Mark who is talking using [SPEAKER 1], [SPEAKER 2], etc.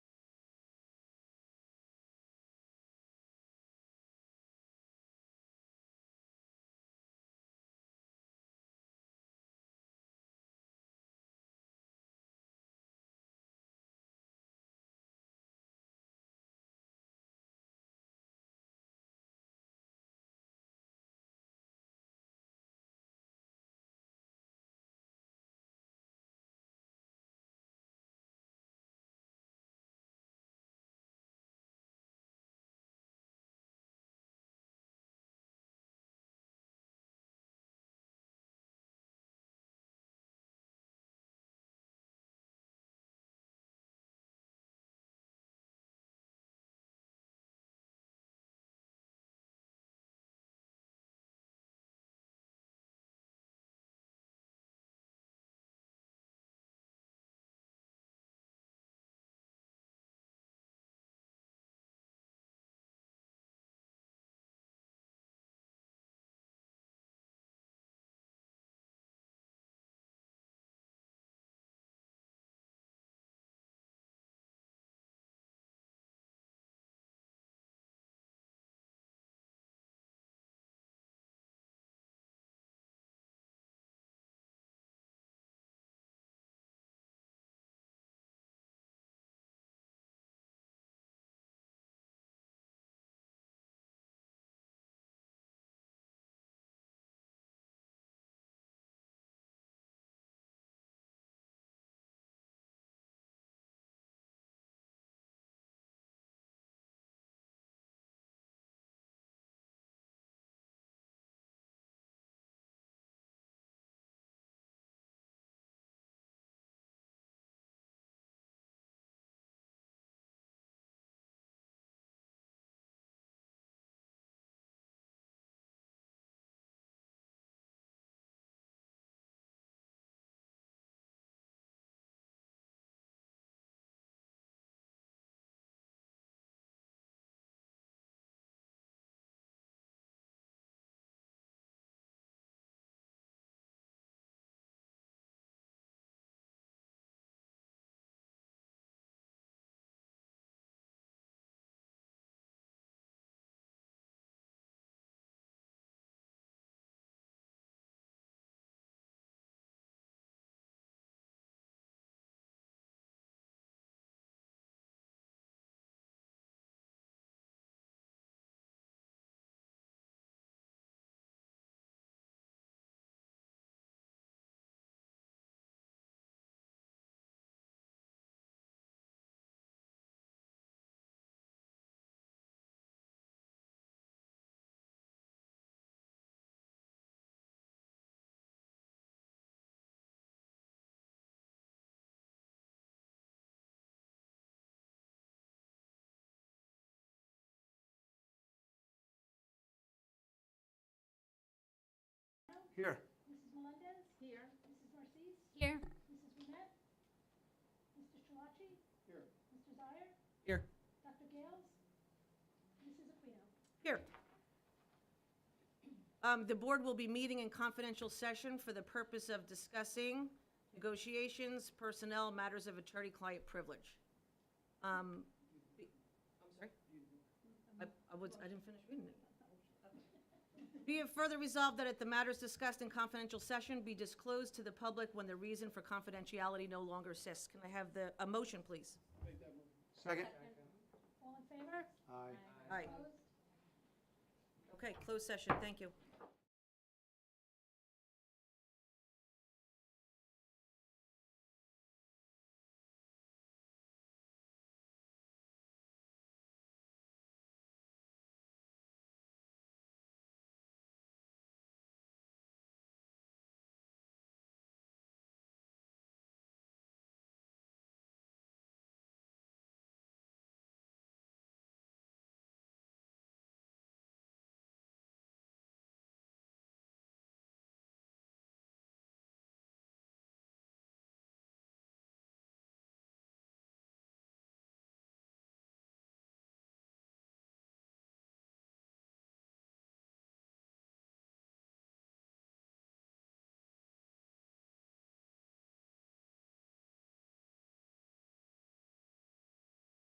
[SPEAKER 1] Here.
[SPEAKER 2] Mrs. Melendez? Here. Mrs. Narcisse?
[SPEAKER 3] Here.
[SPEAKER 2] Mrs. Brunette? Mr. Chouachi?
[SPEAKER 1] Here.
[SPEAKER 2] Mr. Zire?
[SPEAKER 1] Here.
[SPEAKER 2] Dr. Gales? Mrs. Aquino?
[SPEAKER 4] Here. Um, The board will be meeting in confidential session for the purpose of discussing negotiations, personnel, matters of attorney-client privilege. Um, be- I'm sorry? I I was, I didn't finish reading it. Be it further resolved that at the matters discussed in confidential session be disclosed to the public when the reason for confidentiality no longer exists. Can I have the, a motion, please?
[SPEAKER 1] Second.
[SPEAKER 2] All in favor?
[SPEAKER 1] Aye.
[SPEAKER 4] Aye.
[SPEAKER 2] Opposed?
[SPEAKER 4] Okay, closed session, thank you.